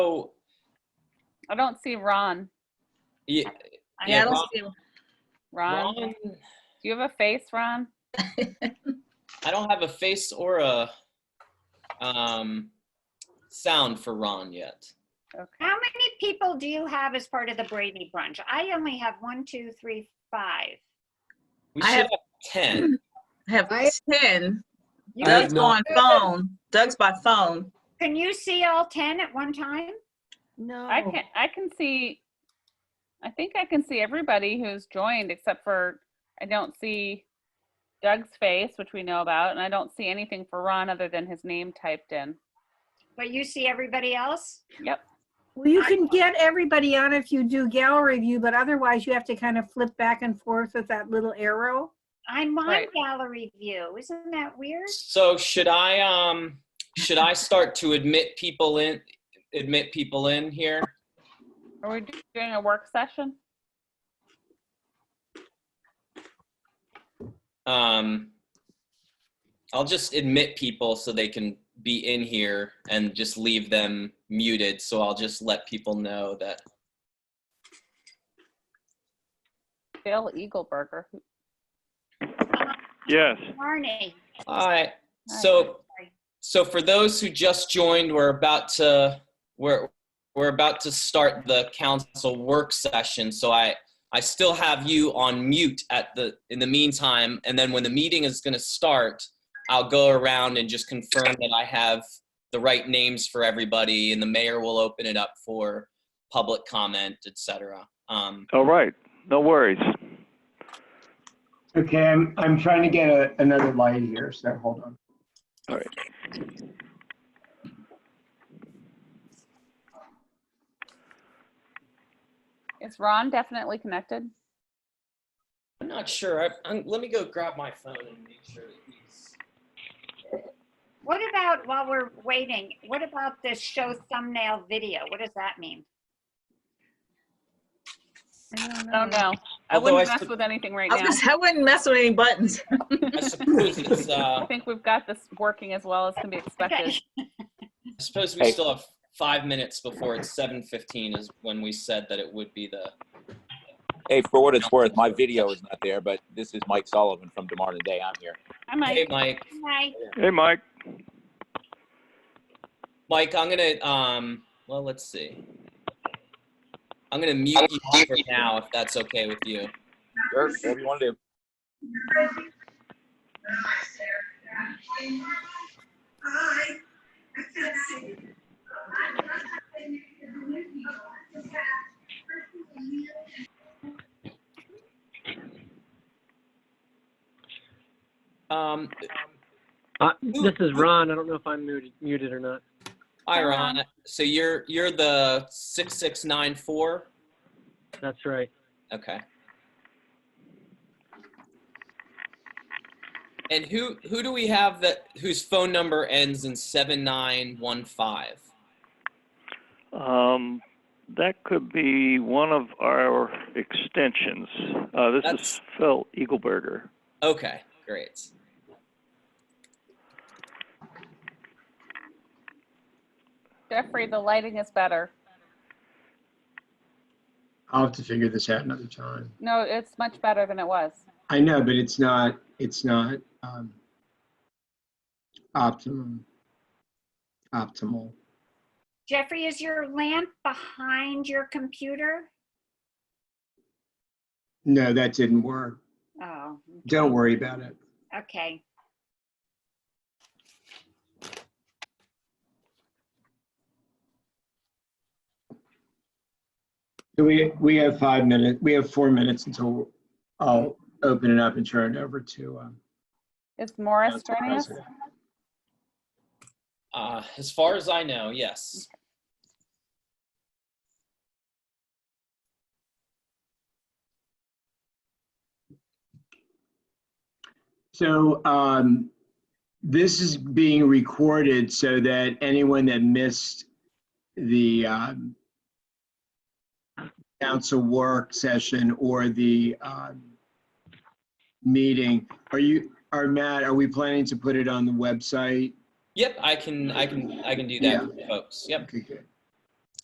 I don't see Ron. Yeah, I Yeah, don't Ron- see him. Ron, Ron, do you have a face, Ron? I don't have a face or a um, sound for Ron yet. How many people do you have as part of the Brady Bunch? I only have one, two, three, five. We I should have, have- 10. I have I- 10. You- I have Doug's no- on phone. Doug's by phone. Can you see all 10 at one time? No. Oh. I can I can see I think I can see everybody who's joined except for I don't see Doug's face, which we know about, and I don't see anything for Ron other than his name typed in. But you see everybody else? Well, you can get everybody on if you do gallery view, but otherwise you have to kind of flip back and forth with that little arrow. I'm on Right. gallery view. Isn't that weird? So should I um should I start to admit people in admit people in here? Are we doing a work session? Um I'll just admit people so they can be in here and just leave them muted so I'll just let people know that Bill Eagleberger. who- Yes. Marnie. all right. So so for those who just joined, we're about to we're we're about to start the council work session. So I I still have you on mute at the in the meantime, and then when the meeting is going to start, I'll go around and just confirm that I have the right names for everybody, and the mayor will open it up for public comment, etc. Um, All right. No worries. Okay, I'm, I'm trying to get a, another light here, so hold on. All right. Is Ron definitely connected? I'm not sure. I, I'm, let me go grab my phone and make sure that he's. What about, while we're waiting, what about this show thumbnail video? What does that mean? Oh no. I Although I wouldn't mess sup- with anything right I, was now. gonna say, I wouldn't mess with any buttons. I suppose it's. I Uh, think we've got this working as well as can be expected. Okay. I suppose we Hey. still have five minutes before it's seven fifteen is when we said that it would be the. Hey, for what it's worth, my video is not there, but this is Mike Sullivan from Tomorrow Today. I'm here. I might Hey, Mike. Hi. Hey, Mike. Mike, I'm gonna um. Well, let's see. I'm gonna mute you for now if that's okay with you. Sure, whatever you want to do. Um, Uh, this is Ron. I don't know if I'm muted, muted or not. hi Ron. So you're you're the six six nine four. That's right. Okay. And who who do we have that whose phone number ends in seven nine one five? Um, that could be one of our extensions. Uh, this That's- is Phil Eagleberger. Okay, great. Jeffrey, the lighting is better. I'll have to figure this out another time. No, it's much better than it was. I know, but it's not, it's not, um, optimum, optimal. Jeffrey, is your lamp behind your computer? No, that didn't work. Oh, Don't worry about it. okay. So We, we have five minutes, we have four minutes until I'll open it up and turn it over to, um, Is Morris Council joining us? President. Uh, as far as I know, yes. So um, this is being recorded so that anyone that missed the um, council work session or the um, meeting, are you, are Matt, are we planning to put it on the website? Yep, I can, I can, I can do that, for folks. Yep. Okay, good.